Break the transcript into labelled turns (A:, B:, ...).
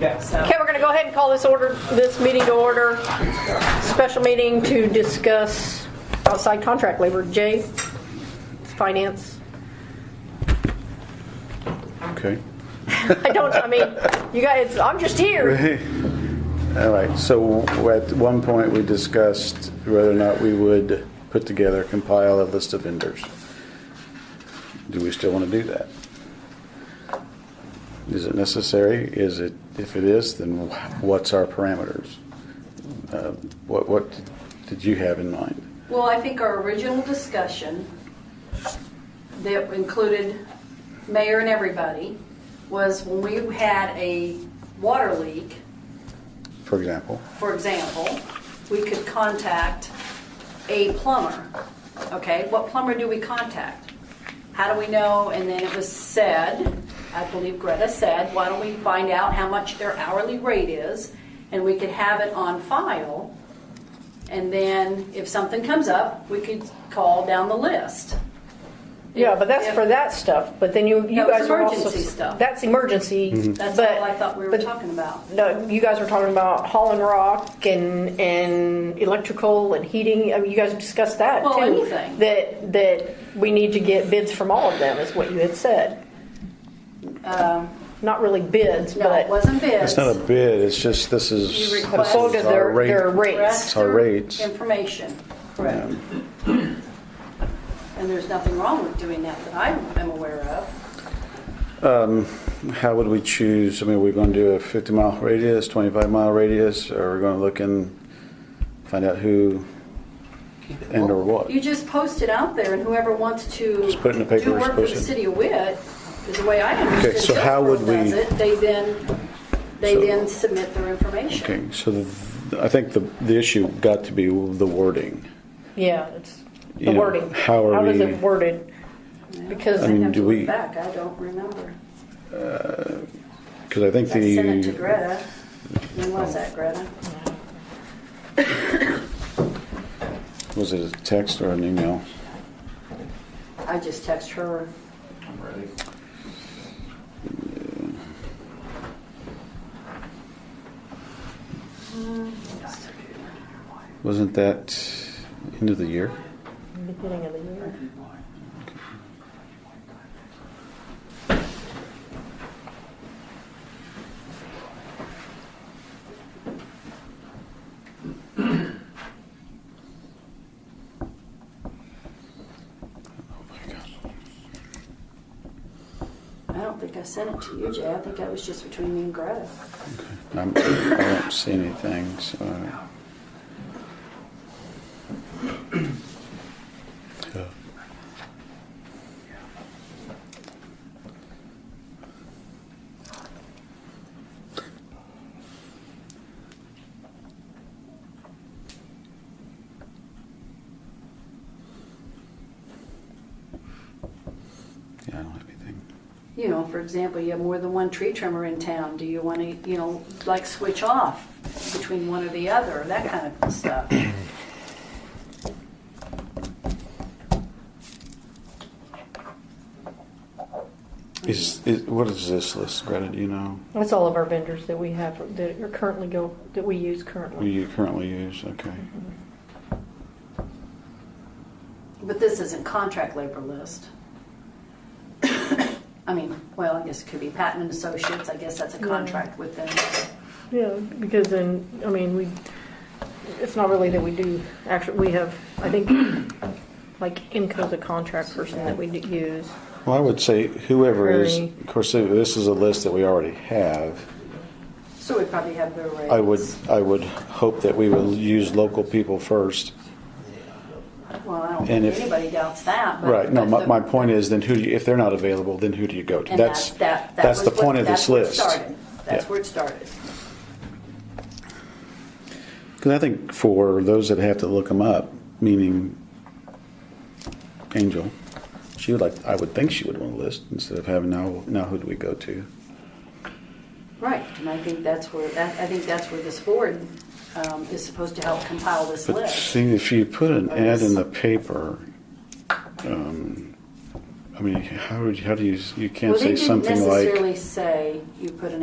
A: Yes.
B: Okay, we're going to go ahead and call this order, this meeting to order. Special meeting to discuss outside contract labor. Jay, finance.
C: Okay.
B: I don't, I mean, you guys, I'm just here.
C: All right, so at one point, we discussed whether or not we would put together, compile a list of vendors. Do we still want to do that? Is it necessary? Is it, if it is, then what's our parameters? Uh, What, what did you have in mind?
D: Well, I think our original discussion that included mayor and everybody was when we had a water leak,
C: For example,
D: for example, we could contact a plumber. Okay, what plumber do we contact? How do we know? And then it was said, I believe Greta said, why don't we find out how much their hourly rate is? And we could have it on file. And then if something comes up, we could call down the list.
B: Yeah, but that's
D: If-
B: for that stuff, but then you, you
D: No, it's
B: guys were also.
D: emergency stuff.
B: That's emergency.
D: That's
B: but-
D: all I thought we were
B: but-
D: talking about.
B: No, you guys were talking about hauling rock and, and electrical and heating. I mean, you guys discussed that
D: Well,
B: too.
D: anything.
B: That, that we need to get bids from all of them is what you had said. Not really bids,
D: Um, No, it
B: but,
D: wasn't bids.
C: it's not a bid, it's just, this is.
D: You
C: this is
D: request-
B: so did
C: our
B: their,
C: rate.
B: their rates.
D: Correct.
C: It's our rates.
D: Information, correct. And there's nothing wrong with doing that that I am aware of.
C: How would we choose? I mean, we're going to do a 50 mile radius, 25 mile radius, or we're going to look and find out who and or what?
D: You just post it out there and whoever wants to
C: Just put it in the paper,
D: do work for
C: post
D: the
C: it.
D: city of Witt, is the way I understand
C: Okay, so how would we-
D: does it, they then, they
C: So-
D: then submit their information.
C: Okay, so the, I think the, the issue got to be the wording.
B: Yeah, it's the
C: You know,
B: wording.
C: how are
B: was
C: we-
B: it worded? Because,
D: I
C: mean,
D: have
C: do
D: to
C: we-
D: look back, I don't remember.
C: Because I think
D: I sent it to
C: the,
D: Greta. When was that, Greta?
C: was it a text or an email?
D: I just text her.
A: I'm ready.
C: Wasn't that end of the year?
B: beginning of the year.
C: Oh
D: I don't think I sent it to you, Jay. I think that was just between me and Greta.
C: I'm, Um, I don't see anything, so. Yeah, I don't have anything.
D: You know, for example, you have more than one tree trimmer in town. Do you want to, you know, like switch off between one or the other, that kind of stuff?
C: Is, is, what is this list, Greta, do you know?
B: That's all of our vendors that we have, that are currently go, that we use
C: What
B: currently.
C: you currently use, okay.
D: But this isn't contract labor list. I mean, well, I guess it could be patent and associates. I guess that's a contract with them.
B: Yeah, because then, I mean, we, it's not really that we do, actually, we have, I think, like, IMCO's a contract person that we do use.
C: Well, I would say whoever is,
B: Very-
C: of course, this is a list that we already have.
D: So we probably have their rates.
C: I would, I would hope that we will use local people first.
D: Well, I don't
C: and
D: think
C: if-
D: anybody doubts that. but-
C: Right, no,
D: but
C: my,
D: the-
C: my point is then who, do you- if they're not available, then who do you go to?
D: And
C: That's,
D: that- that
C: that's
D: was
C: the
D: what-
C: point of
D: that's
C: this
D: where it
C: list.
D: started. That's
C: Yeah.
D: where it started.
C: Because I think for those that have to look them up, meaning Angel, she would like, I would think she would want a list instead of having now, now who do we go to?
D: Right, and I think that's where, that- I think that's where this board um, is supposed to help compile this
C: But
D: list.
C: see, if you put an
D: Or
C: ad in
D: this.
C: the paper, um, I mean, how would, how do you, you can't
D: Well,
C: say
D: they didn't
C: something like.
D: necessarily say you put an